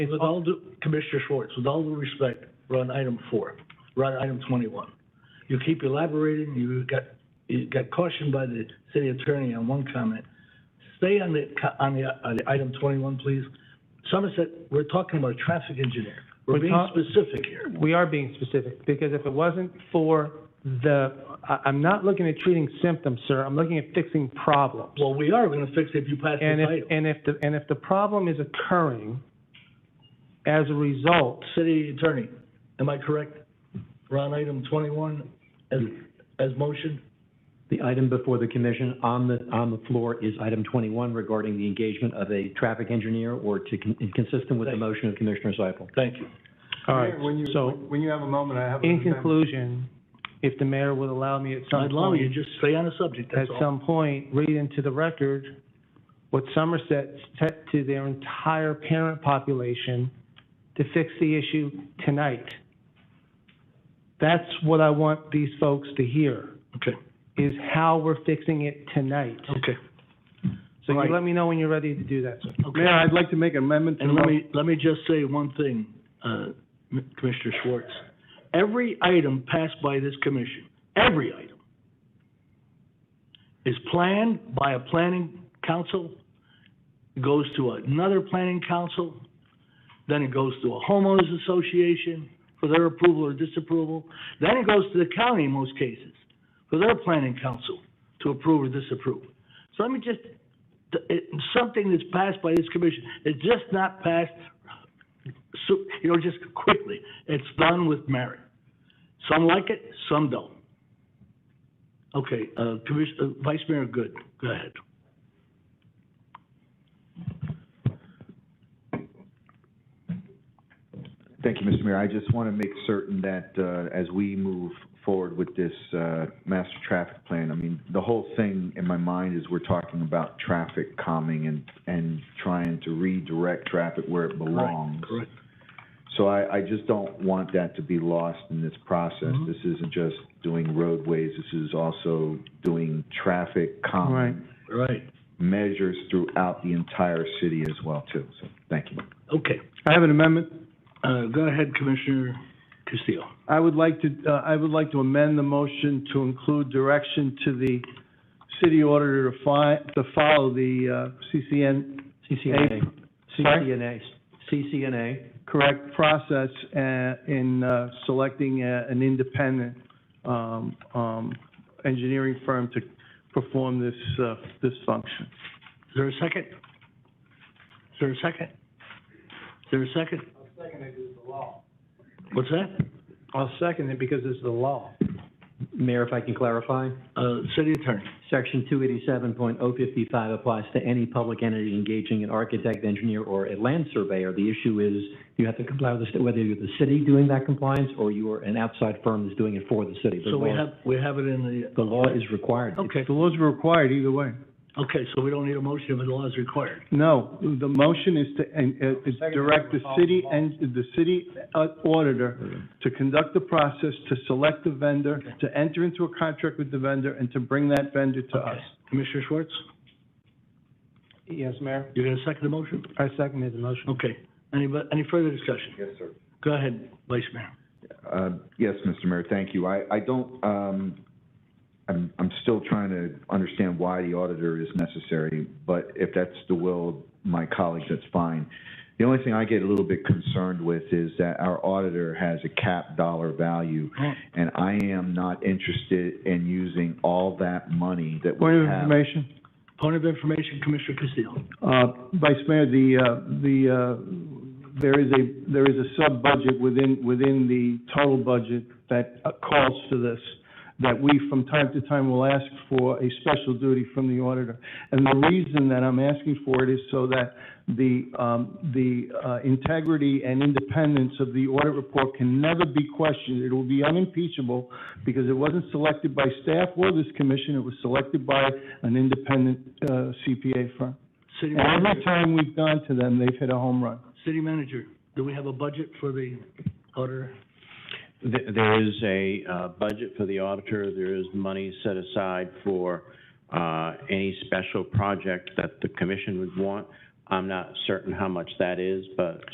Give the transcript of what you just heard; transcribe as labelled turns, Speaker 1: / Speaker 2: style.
Speaker 1: With all due, Commissioner Schwartz, with all due respect, we're on item four, we're on item twenty-one. You keep elaborating, you got, you got cautioned by the city attorney on one comment. Stay on the, co- on the, on the item twenty-one, please. Somerset, we're talking about a traffic engineer. We're
Speaker 2: We're
Speaker 1: being
Speaker 2: talk-
Speaker 1: specific here.
Speaker 2: We are being specific, because if it wasn't for the, I, I'm not looking at treating symptoms, sir, I'm looking at fixing problems.
Speaker 1: Well, we are gonna fix it if you pass this
Speaker 2: And if,
Speaker 1: item.
Speaker 2: and if the, and if the problem is occurring as a result,
Speaker 1: City attorney, am I correct? We're on item twenty-one as, as motion?
Speaker 3: The item before the commission on the, on the floor is item 21 regarding the engagement of a traffic engineer or to, con- consistent with the motion of Commissioner Seifel.
Speaker 1: Thank you.
Speaker 2: all right,
Speaker 4: When you,
Speaker 2: so,
Speaker 4: when you have a moment, I have. a-
Speaker 2: in conclusion, if the mayor would allow me at some
Speaker 1: I'd love you,
Speaker 2: point,
Speaker 1: to just stay on the subject,
Speaker 2: at
Speaker 1: that's all.
Speaker 2: some point, read into the record what Somerset said to their entire parent population to fix the issue tonight. That's what I want these folks to hear,
Speaker 1: Okay,
Speaker 2: is how we're fixing it tonight.
Speaker 1: okay.
Speaker 2: So
Speaker 1: Right.
Speaker 2: you let me know when you're ready to do that, sir.
Speaker 1: Okay.
Speaker 4: Mayor, I'd like to make an amendment to.
Speaker 1: And let
Speaker 4: my-
Speaker 1: me, let me just say one thing, uh, M- Commissioner Schwartz. Every item passed by this commission, every item, is planned by a planning council, goes to another planning council, then it goes to a homeowners association for their approval or disapproval, then it goes to the county in most cases for their planning council to approve or disapprove. So let me just th- it- something that's passed by this commission, it's just not passed, so, you know, just quickly. It's done with merit. Some like it, some don't. Okay, uh, Commission, uh, Vice Mayor Good, go ahead.
Speaker 5: Thank you, Mr. Mayor. I just want to make certain that uh, as we move forward with this uh, master traffic plan, I mean, the whole thing in my mind is we're talking about traffic calming and, and trying to redirect traffic where it belongs.
Speaker 1: Correct.
Speaker 5: So I, I just don't want that to be lost in this process.
Speaker 3: Mm-hmm.
Speaker 1: Mhm.
Speaker 5: This isn't just doing roadways, this is also doing traffic
Speaker 2: Right.
Speaker 5: calming
Speaker 1: Right,
Speaker 5: measures throughout the entire city as well, too. So, thank you.
Speaker 1: okay.
Speaker 4: I have an amendment.
Speaker 1: Uh, go ahead, Commissioner Castillo.
Speaker 4: I would like to, uh, I would like to amend the motion to include direction to the city auditor to fi, to follow the, uh, CCN,
Speaker 3: CCNA.
Speaker 4: Sorry?
Speaker 3: CCNA. CCNA.
Speaker 4: correct process, uh, in, uh, selecting, uh, an independent, um, um, engineering firm to perform this, uh, this function.
Speaker 1: Is there a second? Is there a second? Is there a second? What's that?
Speaker 2: I'll second it because it's the law.
Speaker 3: Mayor, if I can clarify,
Speaker 1: Uh, City Attorney.
Speaker 3: section 287.055 applies to any public entity engaging an architect, engineer, or a land surveyor. The issue is you have to comply with the, sta- whether you're the city doing that compliance or you are an outside firm that's doing it for the city. The
Speaker 1: So we
Speaker 3: law-
Speaker 1: have, we have it in the,
Speaker 3: The law is required.
Speaker 1: Okay,
Speaker 4: The laws are required either way.
Speaker 1: okay, so we don't need a motion if the law is required.
Speaker 4: No, the motion is to, and, uh, is direct the city and, the city uh, auditor to conduct the process, to select the vendor, to enter into a contract with the vendor, and to bring that vendor to us.
Speaker 1: Okay. Commissioner Schwartz,
Speaker 2: Yes, Mayor?
Speaker 1: you gonna second the motion?
Speaker 2: I seconded the motion.
Speaker 1: Okay, any, bu- any further discussion?
Speaker 5: Yes, sir.
Speaker 1: Go ahead, Vice Mayor.
Speaker 5: Uh, Yes, Mr. Mayor, thank you. I, I don't, um, I'm, I'm still trying to understand why the auditor is necessary, but if that's the will of my colleagues, that's fine. The only thing I get a little bit concerned with is that our auditor has a cap dollar value,
Speaker 1: Mm.
Speaker 5: and I am not interested in using all that money that we
Speaker 4: Point of
Speaker 5: have.
Speaker 4: information,
Speaker 1: Point of information, Commissioner Castillo.
Speaker 4: uh, Vice Mayor, the, uh, the, uh, there is a, there is a sub-budget within, within the total budget that uh, calls for this, that we from time to time will ask for a special duty from the auditor. And the reason that I'm asking for it is so that the, um, the uh, integrity and independence of the audit report can never be questioned. It will be unimpeachable because it wasn't selected by staff or this commission, it was selected by an independent uh, CPA firm.
Speaker 1: City
Speaker 4: And every
Speaker 1: Manager,
Speaker 4: time we've gone to them, they've hit a home run.
Speaker 1: City Manager, do we have a budget for the auditor?
Speaker 6: Th- There is a uh, budget for the auditor, there is money set aside for uh, any special project that the commission would want. I'm not certain how much that is, but